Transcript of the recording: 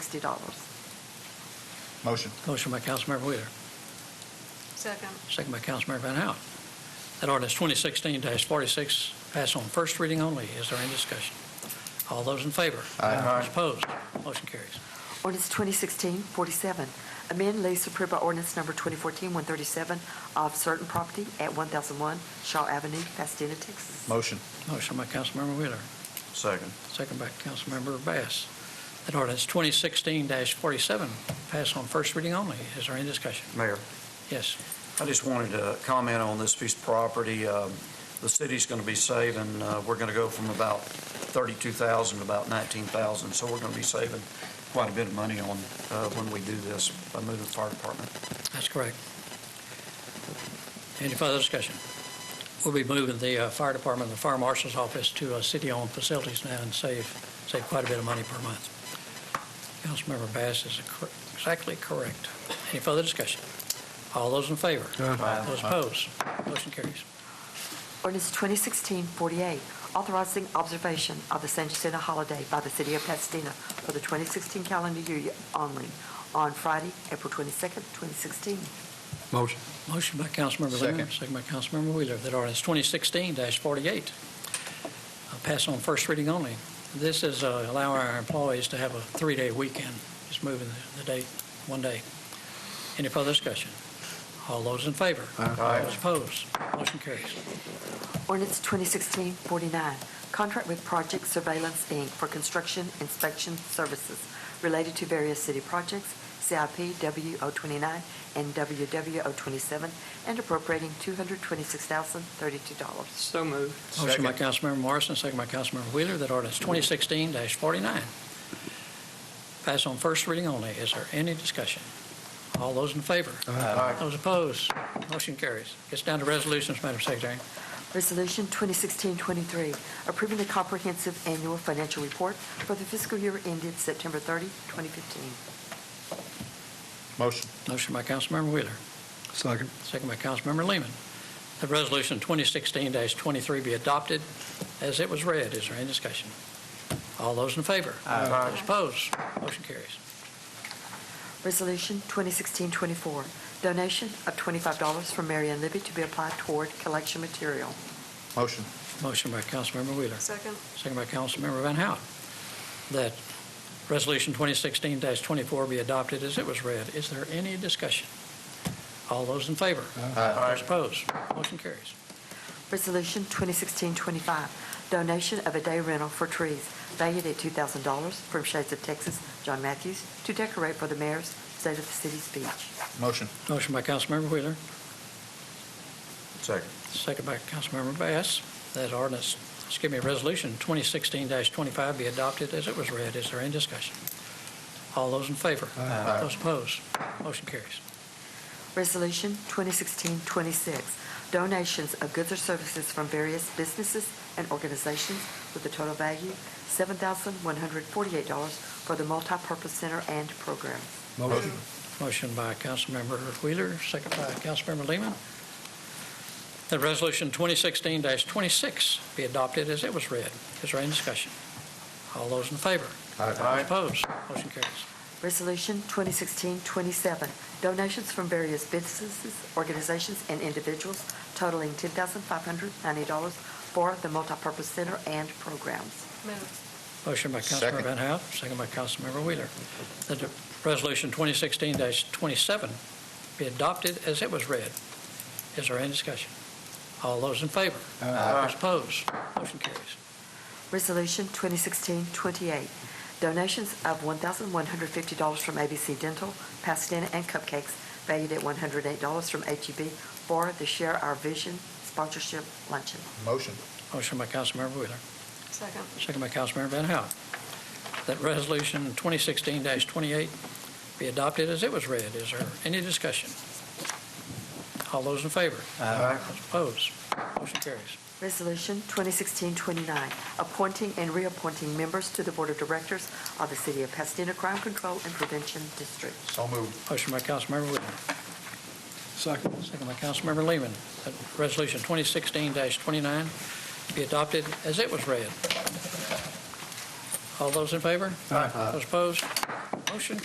sixty dollars. Motion. Motion by Councilmember Wheeler, Second. second by Councilmember Van Hout. That ordinance 2016-46 pass on first reading only. Is there any discussion? All those in favor? Aye. Aye. Those Opposed? Motion carries. Ordinance 2016-47, amend lease approved by ordinance number 2014-137 of certain property at 1001 Shaw Avenue, Pasadena, Texas. Motion. Motion by Councilmember Wheeler, Second. second by Councilmember Bass. That ordinance 2016-47 pass on first reading only. Is there any discussion? Mayor, Yes. I just wanted to comment on this piece of property. Um, The city's going to be saving, uh, we're going to go from about 32,000 to about 19,000, so we're going to be saving quite a bit of money on, uh, when we do this, by moving the fire department. That's correct. Any further discussion? We'll be moving the uh, fire department, and the fire marshal's office to uh, city-owned facilities now and save, save quite a bit of money per month. Councilmember Bass is cor- exactly correct. Any further discussion? All those in favor? Aye. Those opposed? Motion carries. Ordinance 2016-48, authorizing observation of the San Jacinto holiday by the city of Pasadena for the 2016 calendar year only on Friday, April 22nd, 2016. Motion. Motion by Councilmember Leonard, Second. second by Councilmember Wheeler, that ordinance 2016-48 uh, pass on first reading only. This is uh, allowing our employees to have a three-day weekend, just moving the- the date one day. Any further discussion? All those in favor? Aye. Those opposed? Motion carries. Ordinance 2016-49, contract with Project Surveillance, Inc. for construction inspection services related to various city projects, CIP W029 and WW027, and appropriating $226,032. So moved. Motion by Second. Councilmember Morrison, second by Councilmember Wheeler, that ordinance 2016-49 pass on first reading only. Is there any discussion? All those in favor? Aye. Those opposed? Motion carries. Gets down to resolutions, Madam Secretary. Resolution 2016-23, approving the comprehensive annual financial report for the fiscal year ended September 30, 2015. Motion. Motion by Councilmember Wheeler, Second. second by Councilmember Lehman. That Resolution 2016-23 be adopted as it was read. Is there any discussion? All those in favor? Aye. Those opposed? Motion carries. Resolution 2016-24, donation of $25 from Marion Libby to be applied toward collection material. Motion. Motion by Councilmember Wheeler, Second. second by Councilmember Van Hout, that Resolution 2016-24 be adopted as it was read. Is there any discussion? All those in favor? Aye. Those opposed? Motion carries. Resolution 2016-25, donation of a day rental for trees valued at $2,000 from Shades of Texas, John Matthews, to decorate for the mayor's State of the City speech. Motion. Motion by Councilmember Wheeler, Second. Second by Councilmember Bass, that ordinance, excuse me, Resolution 2016-25 be adopted as it was read. Is there any discussion? All those in favor? Aye. Those opposed? Motion carries. Resolution 2016-26, donations of goods or services from various businesses and organizations with a total value $7,148 for the multipurpose center and program. Motion. Motion by Councilmember Wheeler, second by Councilmember Lehman, that Resolution 2016-26 be adopted as it was read. Is there any discussion? All those in favor? Those opposed? Motion carries. Resolution 2016-27, donations from various businesses, organizations, and individuals totaling $10,590 for the multipurpose center and programs. Moved. Motion by Councilmember Second. Van Hout, second by Councilmember Wheeler, that the Resolution 2016-27 be adopted as it was read. Is there any discussion? All those in favor? Aye. Those opposed? Motion carries. Resolution 2016-28, donations of $1,150 from ABC Dental, Pasadena, and Cupcakes, valued at $108 from HEB for the Share Our Vision sponsorship luncheon. Motion. Motion by Councilmember Wheeler, Second. second by Councilmember Van Hout, that Resolution 2016-28 be adopted as it was read. Is there any discussion? All those in favor? Aye. Those opposed? Motion carries. Resolution 2016-29, appointing and reappointing members to the Board of Directors of the City of Pasadena Crime Control and Prevention District. So moved. Motion by Councilmember Wheeler, Second. Second by Councilmember Lehman, that Resolution 2016-29 be adopted as it was read. All those in favor? Aye. Those opposed? Motion